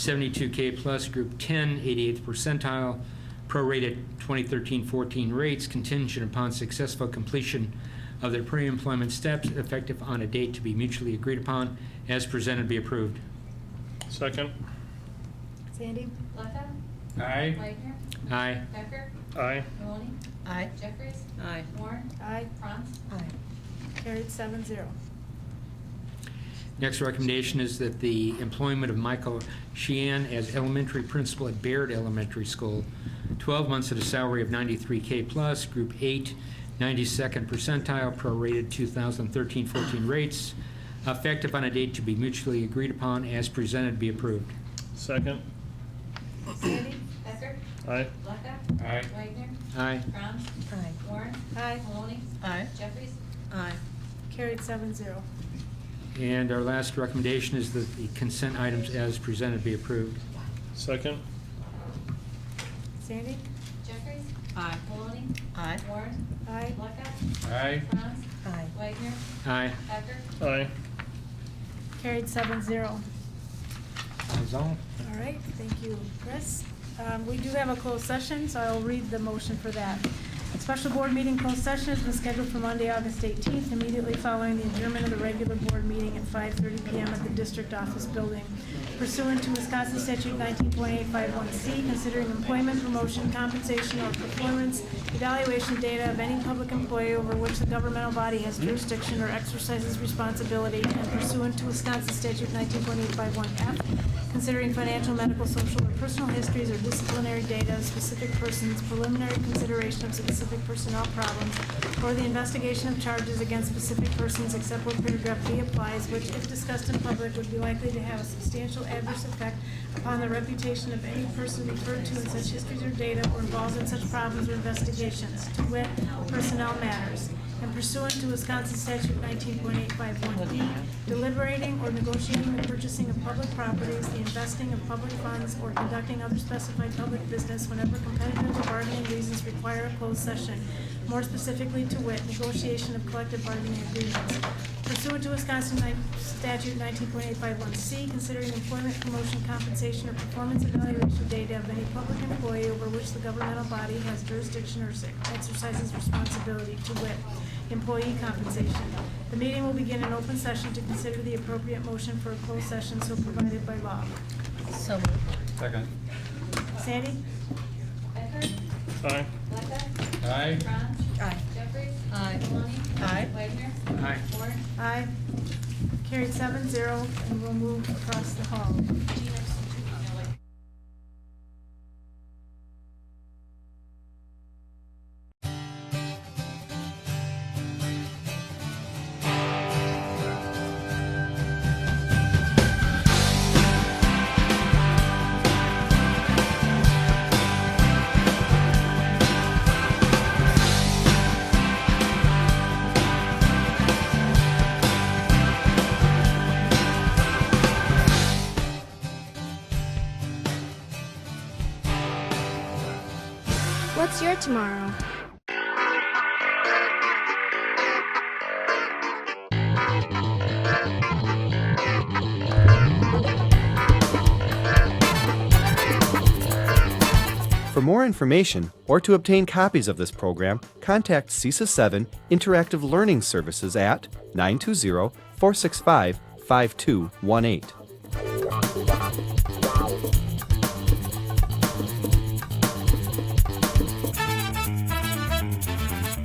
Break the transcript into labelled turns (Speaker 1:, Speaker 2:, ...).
Speaker 1: 72K plus, Group 10, 88th percentile, prorated 2013-14 rates contingent upon successful completion of their pre-employment steps effective on a date to be mutually agreed upon, as presented be approved.
Speaker 2: Second.
Speaker 3: Sandy?
Speaker 4: Blackout?
Speaker 2: Aye.
Speaker 4: Wagner?
Speaker 1: Aye.
Speaker 4: Becker?
Speaker 2: Aye.
Speaker 4: Maloney?
Speaker 5: Aye.
Speaker 4: Jeffries?
Speaker 5: Aye.
Speaker 4: Warren?
Speaker 3: Aye.
Speaker 4: Franz?
Speaker 5: Aye.
Speaker 3: Carried seven zero.
Speaker 1: Next recommendation is that the employment of Michael Sheehan as elementary principal at Baird Elementary School, 12 months at a salary of 93K plus, Group 8, 92nd percentile, prorated 2013-14 rates, effective on a date to be mutually agreed upon, as presented, be approved.
Speaker 2: Second.
Speaker 4: Sandy? Becker?
Speaker 2: Aye.
Speaker 4: Blackout?
Speaker 2: Aye.
Speaker 4: Wagner?
Speaker 1: Aye.
Speaker 4: Franz?
Speaker 5: Aye.
Speaker 4: Warren?
Speaker 3: Aye.
Speaker 4: Maloney?
Speaker 5: Aye.
Speaker 4: Jeffries?
Speaker 5: Aye.
Speaker 3: Carried seven zero.
Speaker 1: And our last recommendation is that the consent items as presented be approved.
Speaker 2: Second.
Speaker 3: Sandy?
Speaker 4: Jeffries?
Speaker 5: Aye.
Speaker 4: Maloney?
Speaker 5: Aye.
Speaker 4: Warren?
Speaker 3: Aye.
Speaker 4: Blackout?
Speaker 2: Aye.
Speaker 4: Franz?
Speaker 5: Aye.
Speaker 4: Wagner?
Speaker 1: Aye.
Speaker 4: Becker?
Speaker 2: Aye.
Speaker 3: Carried seven zero.
Speaker 1: That is all.
Speaker 3: All right, thank you, Chris. Um, We do have a closed session, so I'll read the motion for that. Special board meeting closed session has been scheduled for Monday, August 18th, immediately following the adjournment of the regular board meeting at 5:30 PM at the district office building pursuant to Wisconsin statute 19.851C, considering employment, promotion, compensation, or performance evaluation data of any public employee over which the governmental body has jurisdiction or exercises responsibility and pursuant to Wisconsin statute 19.851F, considering financial, medical, social, or personal histories or disciplinary data of specific persons, preliminary consideration of specific personnel problems, or the investigation of charges against specific persons except where paragraph B applies, which if discussed in public would be likely to have a substantial adverse effect upon the reputation of any person referred to in such histories or data or involved in such problems or investigations, to wit, personnel matters. And pursuant to Wisconsin statute nineteen point eight five one E, deliberating or negotiating the purchasing of public properties, the investing of public funds, or conducting other specified public business whenever competitive or bargaining reasons require a closed session, more specifically to wit, negotiation of collective bargaining agreements. Pursuant to Wisconsin ni- statute nineteen point eight five one C, considering employment, promotion, compensation, or performance evaluation data of any public employee over which the governmental body has jurisdiction or exercises responsibility to wit, employee compensation. The meeting will begin in open session to consider the appropriate motion for a closed session so provided by law.
Speaker 5: So moved.
Speaker 6: Second.
Speaker 3: Sandy?
Speaker 4: Becker?
Speaker 2: Aye.
Speaker 4: Blackout?
Speaker 6: Aye.
Speaker 4: Franz?
Speaker 5: Aye.
Speaker 4: Jeffries?
Speaker 5: Aye.
Speaker 4: Maloney?
Speaker 5: Aye.
Speaker 4: Wagner?
Speaker 1: Aye.
Speaker 4: Warren?
Speaker 3: Aye. Carried seven zero, and we'll move across the hall.
Speaker 7: What's your tomorrow?
Speaker 8: For more information or to obtain copies of this program, contact CISA 7 Interactive Learning Services at 920 465 5218.